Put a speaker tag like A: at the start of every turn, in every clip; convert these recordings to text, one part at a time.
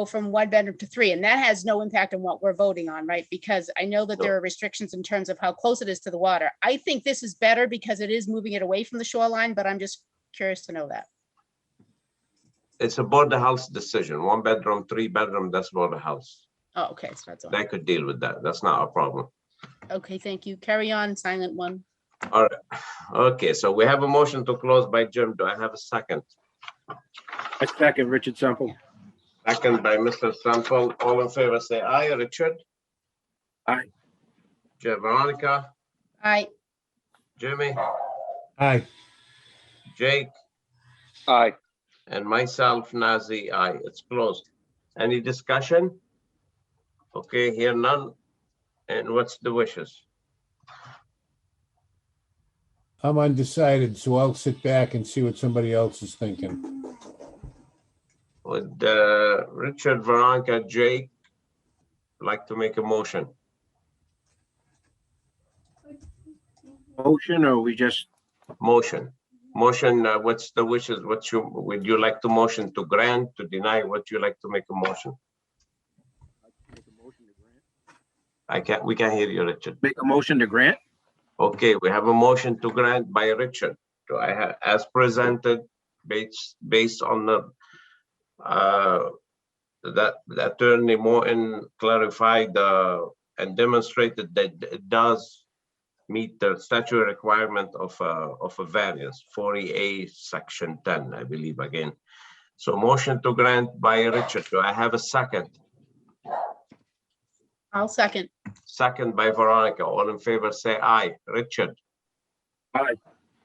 A: go from one bedroom to three, and that has no impact on what we're voting on, right? Because I know that there are restrictions in terms of how close it is to the water. I think this is better because it is moving it away from the shoreline, but I'm just curious to know that.
B: It's a board house decision, one bedroom, three bedroom, that's board house.
A: Oh, okay, so that's all.
B: They could deal with that. That's not a problem.
A: Okay, thank you. Carry on, silent one.
B: Okay, so we have a motion to close by Jim. Do I have a second?
C: I second Richard Semple.
B: Second by Mr. Sample. All in favor, say aye. Richard?
C: Aye.
B: Ja- Veronica,
A: Aye,
B: Jimmy,
D: Aye.
B: Jake,
C: Aye.
B: and myself, Nazi, aye. It's closed. Any discussion? Okay, here none. And what's the wishes?
D: I'm undecided, so I'll sit back and see what somebody else is thinking.
B: Would uh, Richard, Veronica, Jake like to make a motion?
C: Motion or we just,
B: Motion. Motion, uh, what's the wishes? What you, would you like to motion to grant, to deny? What you like to make a motion? I can't, we can't hear you, Richard.
C: make a motion to grant?
B: Okay, we have a motion to grant by Richard. Do I have, as presented, based, based on the uh, that the attorney Morton clarified uh, and demonstrated that it does meet the statutory requirement of a, of a variance, forty A, section ten, I believe again. So motion to grant by Richard. Do I have a second?
A: I'll second.
B: Second by Veronica. All in favor, say aye. Richard?
C: Aye.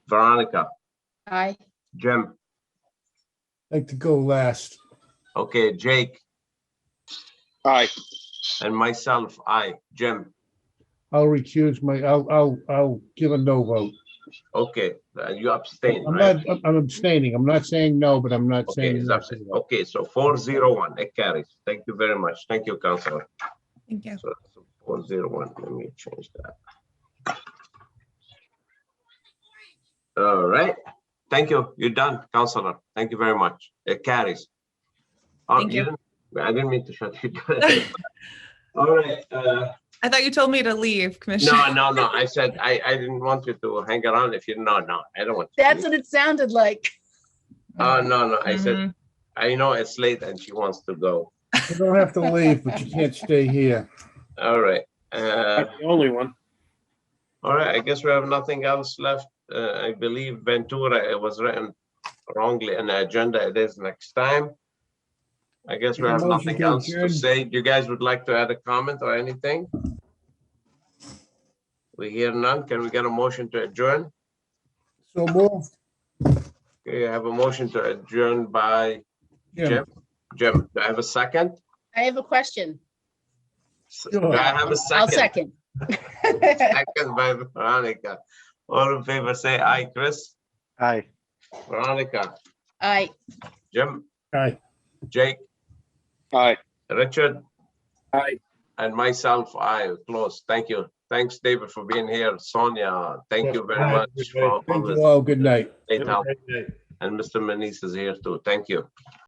B: Veronica?
A: Aye,
B: Jim?
D: Like to go last.
B: Okay, Jake
C: Aye.
B: and myself, I, Jim.
D: I'll recuse my, I'll, I'll, I'll give a no vote.
B: Okay, uh, you abstain,
D: I'm
B: right?
D: not, I'm- I'm abstaining. I'm not saying no, but I'm not
B: Okay,
D: saying.
B: it's
D: no.
B: abstain. Okay, so four zero one, it carries. Thank you very much. Thank you, Counselor.
E: Thank you.
B: So four zero one, let me change that. All right, thank you. You're done, Counselor. Thank you very much. It carries. Oh,
E: Thank you.
B: didn't- I didn't mean to shut you down. All right, uh,
E: I thought you told me to leave,
B: No,
E: Commissioner.
B: no, no. I said, I, I didn't want you to hang around if you, no, no, I don't want. you to
A: that's
B: leave.
A: what it sounded like.
B: Oh, no, no. I said,
E: Mhm.
B: I know it's late and she wants to go.
D: You don't have to leave, but you can't stay here.
B: All right. Uh,
C: That's the only one.
B: all right. I guess we have nothing else left. Uh, I believe Ventura, it was written wrongly in the agenda. It is next time. I guess we
D: Make a
B: have
D: motion
B: nothing
D: to
B: else to
D: adjourn.
B: say. You guys would like to add a comment or anything? We hear none. Can we get a motion to adjourn?
D: So move.
B: Okay, I have a motion to adjourn by Jim.
D: Jim.
B: Jim, do I have a second?
A: I have a question.
B: S-
D: Sure.
B: Do I have a
A: I'll
B: second?
A: second.
B: Second by Veronica. All in favor, say aye. Chris,
C: Aye.
B: Veronica,
A: Aye,
B: Jim,
D: Aye.
B: Jake,
C: Aye.
B: Richard,
C: Aye.
B: and myself, I close. Thank you. Thanks, David, for being here. Sonia, thank you very much for all
D: Thank
B: this
D: you all. Good night.
B: great help. And Mr. Manise is here too. Thank you.